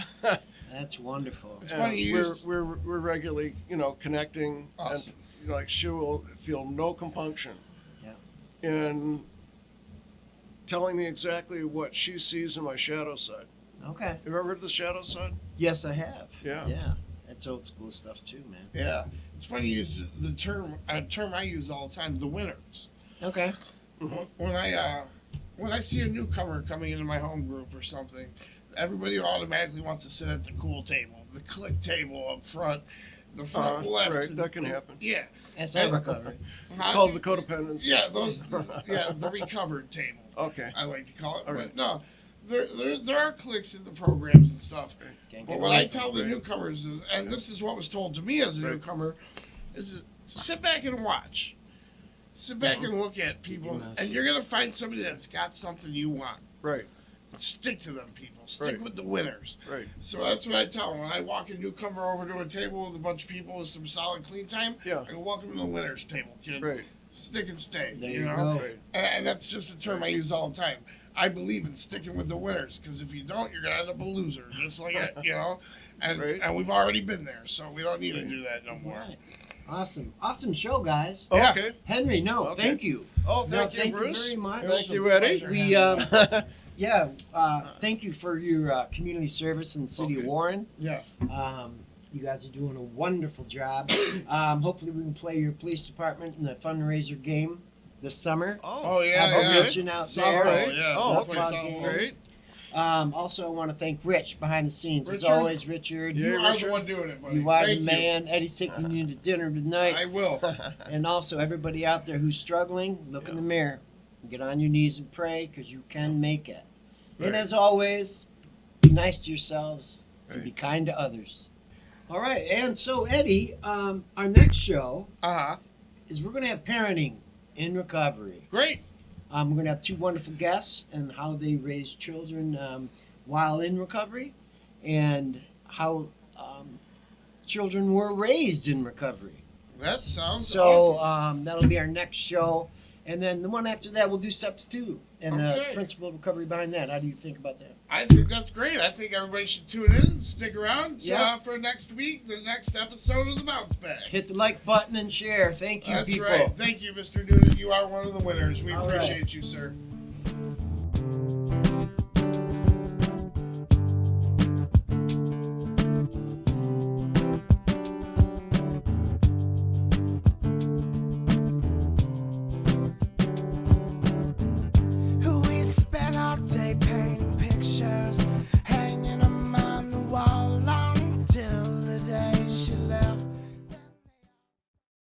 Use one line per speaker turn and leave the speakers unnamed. That's wonderful.
It's
And
funny, you
We're,
used-
we're, we're regularly, you know, connecting and,
Awesome.
you know, like she will feel no compunction.
Yeah.
In telling me exactly what she sees in my shadow side.
Okay.
You ever heard of the shadow side?
Yes, I have.
Yeah.
Yeah. That's old school stuff too, man.
Yeah, it's funny. You use the term a term I use all the time. The winners.
Okay.
Mm-hmm.
When I uh, when I see a newcomer coming into my home group or something, everybody automatically wants to sit at the cool table, the click table up front, the front
Uh,
left.
right, that can happen.
Yeah,
That's I recovery.
It's called the codependency.
Yeah, those. Yeah, the recovered table.
Okay.
I like to call it.
All
but
right.
no, there, there there are clicks in the programs and stuff.
Can't
But
get
what
away
I
from
tell
it.
the newcomers, is, and this is what was told to me as a
Right.
newcomer, is to sit back and watch. Sit back
Uh-huh.
and look at people,
Keep your mouth
and you're gonna find somebody that's got something you want.
Right,
Stick to them, people. Stick
Right.
with the winners.
right.
So that's what I tell them. When I walk a newcomer over to a table with a bunch of people with some solid clean time,
Yeah.
I go, "Welcome to the winners' table, kid.
Right.
Stick and stay."
There
you,
you
know.
go.
Right.
And- And that's just a term I use all the time. I believe in sticking with the winners because if you don't, you're gonna end up a loser, just like it, you know. And
Right.
and we've already been there, so we don't need to do that no more.
Right. Awesome. Awesome show, guys.
Yeah.
Okay.
Henry, no,
Okay.
thank you.
Oh,
No,
thank you, Bruce.
very much.
Thank you, Eddie.
We, uh, yeah, uh, thank you for your uh, community service in the city of
Okay.
Warren.
Yeah.
Um, you guys are doing a wonderful job. Um, hopefully, we can play your police department in the fundraiser game this summer.
Oh yeah.
Have a
yeah.
kitchen out
Softball,
there.
yeah.
Oh,
softball,
okay.
softball.
Great.
Um, also, I want to thank Rich behind the scenes, as
Richard?
always, Richard.
You
Yeah,
are
Richard.
the one doing it, buddy.
You are
Thank
the man. Eddie's taking you to dinner tonight.
You. I will.
And also, everybody out there who's struggling, look in the mirror. Get on your knees and pray because you can make it.
Right.
And as always, be nice to yourselves and be kind to others. All right. And so, Eddie, um, our next show
Uh huh.
is we're going to have parenting in recovery.
Great.
Um, we're going to have two wonderful guests and how they raise children um, while in recovery and how um, children were raised in recovery
That sounds
so
awesome.
um, that'll be our next show and then the one after that we'll do steps two and
Okay.
the principle of recovery behind that how do you think about that
I think that's great. I think everybody should tune in, stick around
Yeah.
uh, for next week, the next episode of the Bounce Back.
hit the like button and share thank you
That's
people
right. Thank you, Mr. Noonan. You are one of the winners. We
All right.
appreciate you, sir.